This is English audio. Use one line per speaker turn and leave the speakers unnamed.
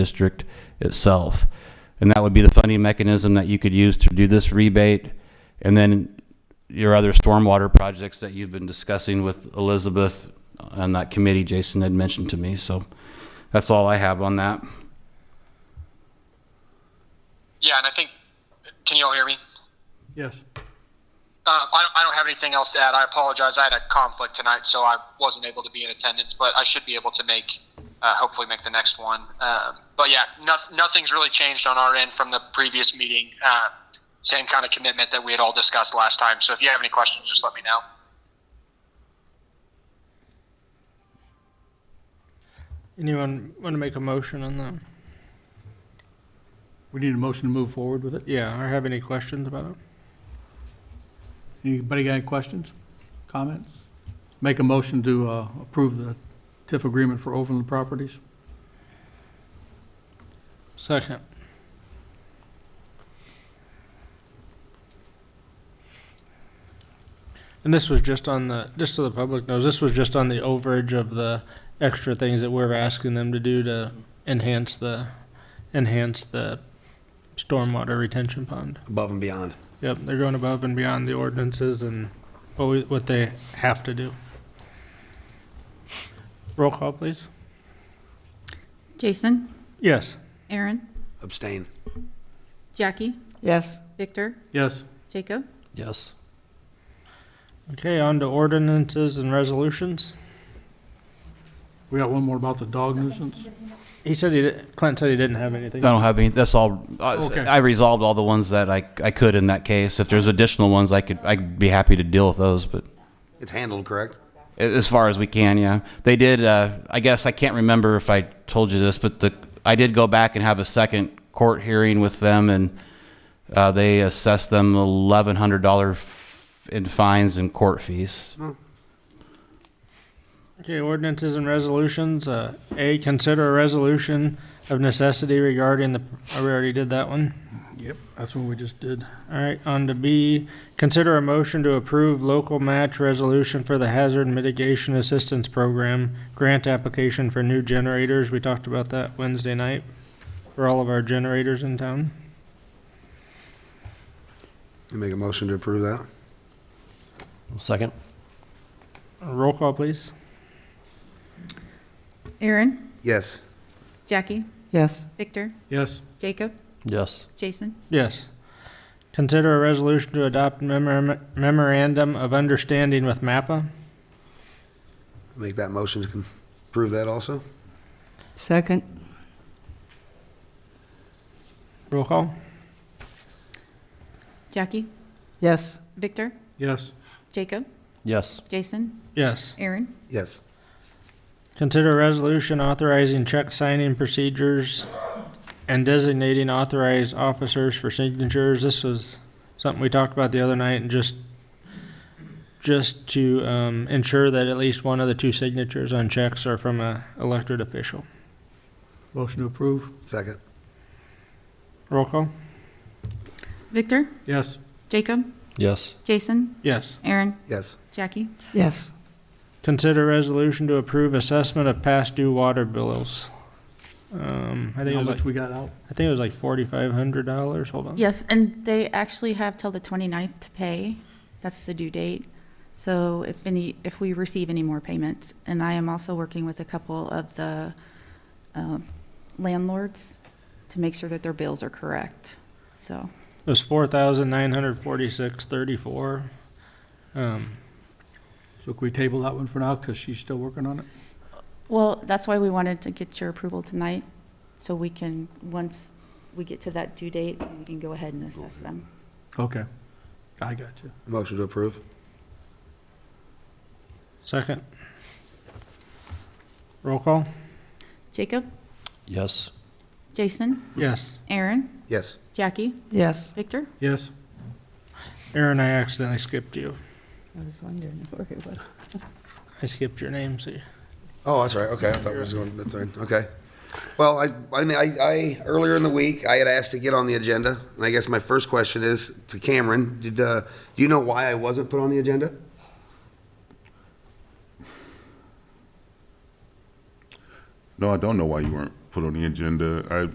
district itself. And that would be the funding mechanism that you could use to do this rebate. And then your other stormwater projects that you've been discussing with Elizabeth on that committee Jason had mentioned to me. So that's all I have on that.
Yeah, and I think, can you all hear me?
Yes.
Uh, I, don't, I don't have anything else to add. I apologize. I had a conflict tonight, so I wasn't able to be in attendance, but I should be able to make, uh, hopefully, make the next one. Uh, but yeah, no, nothing's really changed on our end from the previous meeting. Uh, same kind of commitment that we had all discussed last time. So if you have any questions, just let me know.
Anyone want to make a motion on that?
We need a motion to move forward with it.
Yeah, or have any questions about it?
Anybody got any questions, comments? Make a motion to uh, approve the TIF agreement for Overland Properties.
Second. And this was just on the, just so the public knows, this was just on the overage of the extra things that we're asking them to do to enhance the, enhance the stormwater retention pond.
above and beyond.
Yep, they're going above and beyond the ordinances and what we- what they have to do. Roll call, please.
Jason,
Yes.
Aaron,
Abstain.
Jackie,
Yes,
Victor,
Yes.
Jacob.
Yes.
Okay, on to ordinances and resolutions.
We got one more about the dog nuisance.
He said he, di- Clint said he didn't have anything.
I don't have any, that's all, uh,
Okay.
I- I resolved all the ones that I, I could in that case. If there's additional ones, I could, I'd be happy to deal with those, but.
It's handled, correct?
A- As far as we can, yeah. They did. Uh, I guess I can't remember if I told you this, but the I did go back and have a second court hearing with them, and uh, they assessed them eleven hundred dollar in fines and court fees.
Okay, ordinances and resolutions. Uh, A, consider a resolution of necessity regarding the, oh, we already did that one.
Yep, that's what we just did.
All right, on to B, consider a motion to approve local match resolution for the Hazard Mitigation Assistance Program grant application for new generators. We talked about that Wednesday night for all of our generators in town.
You make a motion to approve that?
Second?
Roll call, please.
Aaron,
Yes.
Jackie,
yes,
Victor,
Yes.
Jacob,
Yes.
Jason.
Yes. Consider a resolution to adopt memor- memorandum of understanding with MAPPA.
Make that motion to con- approve that also?
second,
Roll call?
Jackie,
yes,
Victor,
Yes.
Jacob,
Yes.
Jason,
Yes.
Aaron,
Yes.
Consider resolution authorizing check signing procedures and designating authorized officers for signatures. This was something we talked about the other night and just, just to, um, ensure that at least one of the two signatures on checks are from a elected official.
Motion to approve.
Second?
Roll call?
Victor,
Yes.
Jacob,
Yes.
Jason,
Yes.
Aaron,
Yes.
Jackie,
yes,
Consider resolution to approve assessment of past due water bills. Um, I think it
How
was
much
like,
we got out?
I think it was like forty-five hundred dollars, hold on.
Yes, and they actually have till the 29th to pay. That's the due date. So if any, if we receive any more payments, and I am also working with a couple of the um, landlords to make sure that their bills are correct, so.
It was four thousand nine hundred forty-six thirty-four. Um,
So can we table that one for now because she's still working on it?
Well, that's why we wanted to get your approval tonight, so we can, once we get to that due date, we can go ahead and assess them.
Okay. I got you.
Motion to approve?
second. Roll call?
Jacob,
Yes.
Jason,
Yes.
Aaron,
Yes.
Jackie,
yes.
Victor,
Yes.
Aaron, I accidentally skipped you.
I was wondering where it was.
I skipped your name, see?
Oh, that's right. Okay, I thought we was going, that's right. Okay. Well, I, I, I, earlier in the week, I had asked to get on the agenda, and I guess my first question is to Cameron, did, uh, do you know why I wasn't put on the agenda?
No, I don't know why you weren't put on the agenda. I